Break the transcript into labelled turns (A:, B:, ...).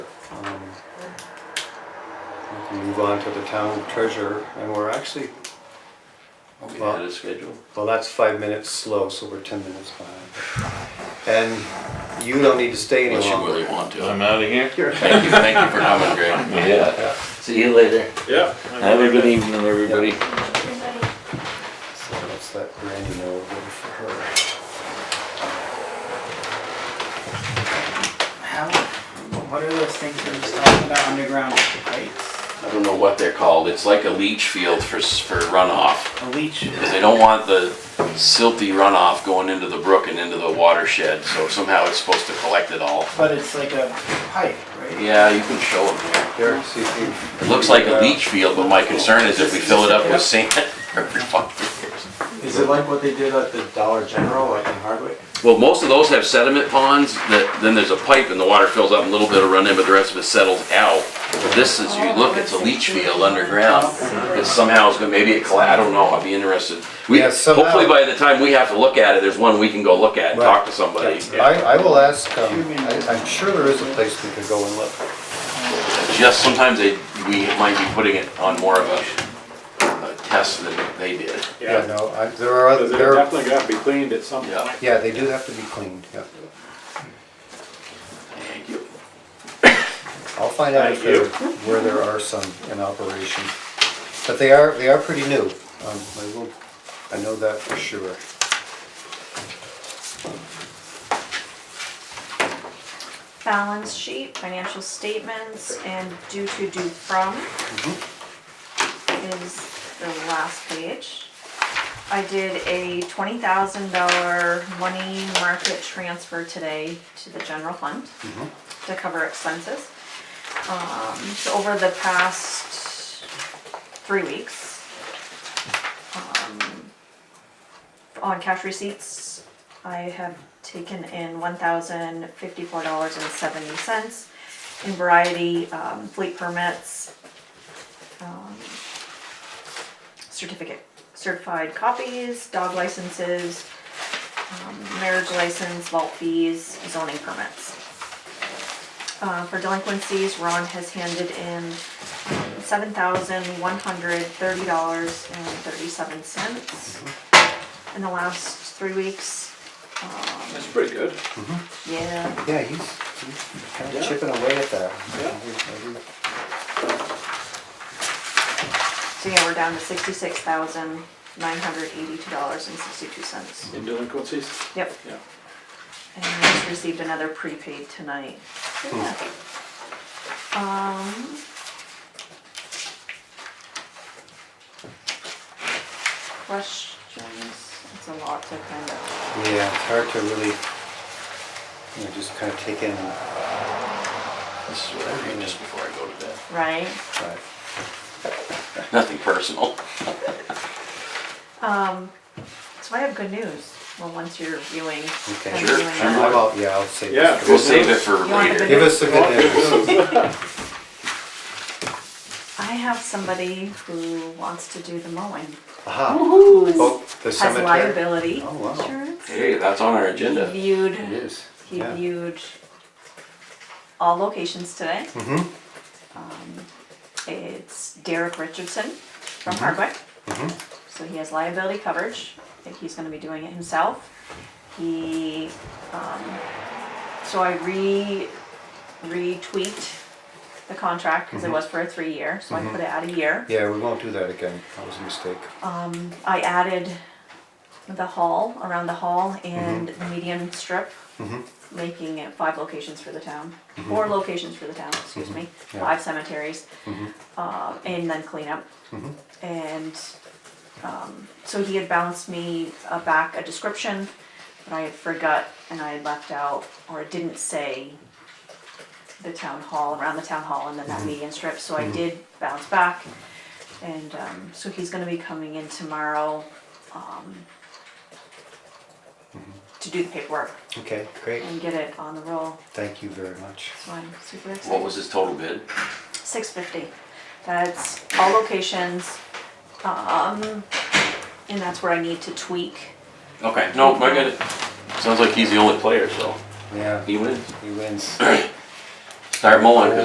A: Um, We Move on to the town treasurer, and we're actually,
B: We
A: Well-
B: had a schedule.
A: well, that's five minutes slow, so we're ten minutes behind. And you don't need to stay any
B: Unless you really
A: longer.
B: want to.
C: I'm out of here.
B: Thank you, thank you for coming, Greg.
C: Yeah. See you later.
D: Yeah.
C: Have a good evening, everybody.
A: So that's that Randy note over for her.
E: How, what are those things we were just talking about, underground pipes?
B: I don't know what they're called. It's like a leach field for, s- for runoff.
E: A leach,
B: Because they don't want the silty runoff going into the brook and into the watershed, so somehow it's supposed to collect it all.
E: but it's like a pipe, right?
B: Yeah, you can show them here.
A: Derek, see if you.
B: It looks like a leach field, but my concern is if we fill it up with sand every five years.
F: Is it like what they did at the Dollar General, like in Hardwick?
B: Well, most of those have sediment ponds that, then there's a pipe and the water fills up a little bit of run in, but the rest of it settles out. But this is, you look, it's a leach field underground. It somehow is gonna, maybe it colla, I don't know, I'd be interested. We,
A: Yeah, somehow-
B: hopefully by the time we have to look at it, there's one we can go look at and talk to somebody.
A: I, I will ask, um, I- I'm sure there is a place we could go and look.
B: Just sometimes they, we might be putting it on more of a, a test than they did.
A: Yeah,
D: Yeah,
A: no, I, there are other,
D: because it
A: there, are-
D: definitely got to be cleaned at some
B: Yeah.
D: point.
A: yeah, they do have to be cleaned, yeah.
B: Thank you.
A: I'll find out if
D: Thank
A: there,
D: you.
A: where there are some in operation. But they are, they are pretty new. Um, I will, I know that for sure.
G: balance sheet, financial statements, and due to due from is the last page. I did a twenty thousand dollar money market transfer today to the general fund to cover expenses. Um, so over the past three weeks, um, on cash receipts, I have taken in one thousand fifty-four dollars and seventy cents in variety, um, fleet permits, um, certificate, certified copies, dog licenses, um, marriage license, vault fees, zoning permits. Uh, for delinquencies, Ron has handed in um, seven thousand one hundred thirty dollars and thirty-seven cents in the last three weeks.
D: That's pretty good.
G: Yeah.
A: Yeah, he's, he's kind of
D: Yeah.
A: chipping away at that.
D: Yeah.
G: So yeah, we're down to sixty-six thousand nine hundred eighty-two dollars and sixty-two cents.
D: In delinquencies,
G: Yep,
D: yeah.
G: and I just received another prepaid tonight. So, yeah. Um. Questions? It's a lot to kind of,
A: Yeah, it's hard to really, you know, just kind of take in, but.
B: This is what I read just before I go to bed.
G: right?
B: Nothing personal.
G: Um, so I have good news, well, once you're viewing.
A: Okay.
G: I'm
B: Sure,
G: viewing
B: sure.
G: that.
A: I'm out, yeah, I'll say
D: Yeah.
A: this.
B: We'll save it for
G: You want the
B: later.
A: Give us the good news.
D: Good news.
G: I have somebody who wants to do the mowing.
A: Aha. Oh, the
G: has
A: cemetery.
G: liability
A: Oh, wow.
G: insurance.
B: Hey, that's on our agenda.
G: He viewed,
A: It is.
G: he
A: yeah.
G: viewed all locations today.
A: Mhm.
G: Um, It's Derek Richardson from Hardwick. So he has liability coverage, I think he's gonna be doing it himself. He, um, so I re, retweaked the contract, cause it was for a three-year, so I put it at a year.
A: Yeah, we won't do that again. That was a mistake.
G: Um, I added the hall, around the hall and the median strip,
A: Mhm.
G: making it five locations for the town, four locations for the town, excuse me,
A: Yeah.
G: five cemeteries, uh, and then cleanup. And, um, so he had bounced me uh, back a description, but I had forgot and I had left out, or didn't say the town hall, around the town hall and then that median strip, so I did bounce back. And um, so he's gonna be coming in tomorrow um, to do the paperwork
A: Okay, great.
G: and get it on the roll,
A: Thank you very much.
G: so I'm super excited.
B: What was his total bid?
G: Six fifty, that's all locations, um, and that's where I need to tweak.
B: Okay, no, I got it. Sounds like he's the only player, so
A: Yeah,
B: he wins.
A: he wins.
B: Start mowing, 'cause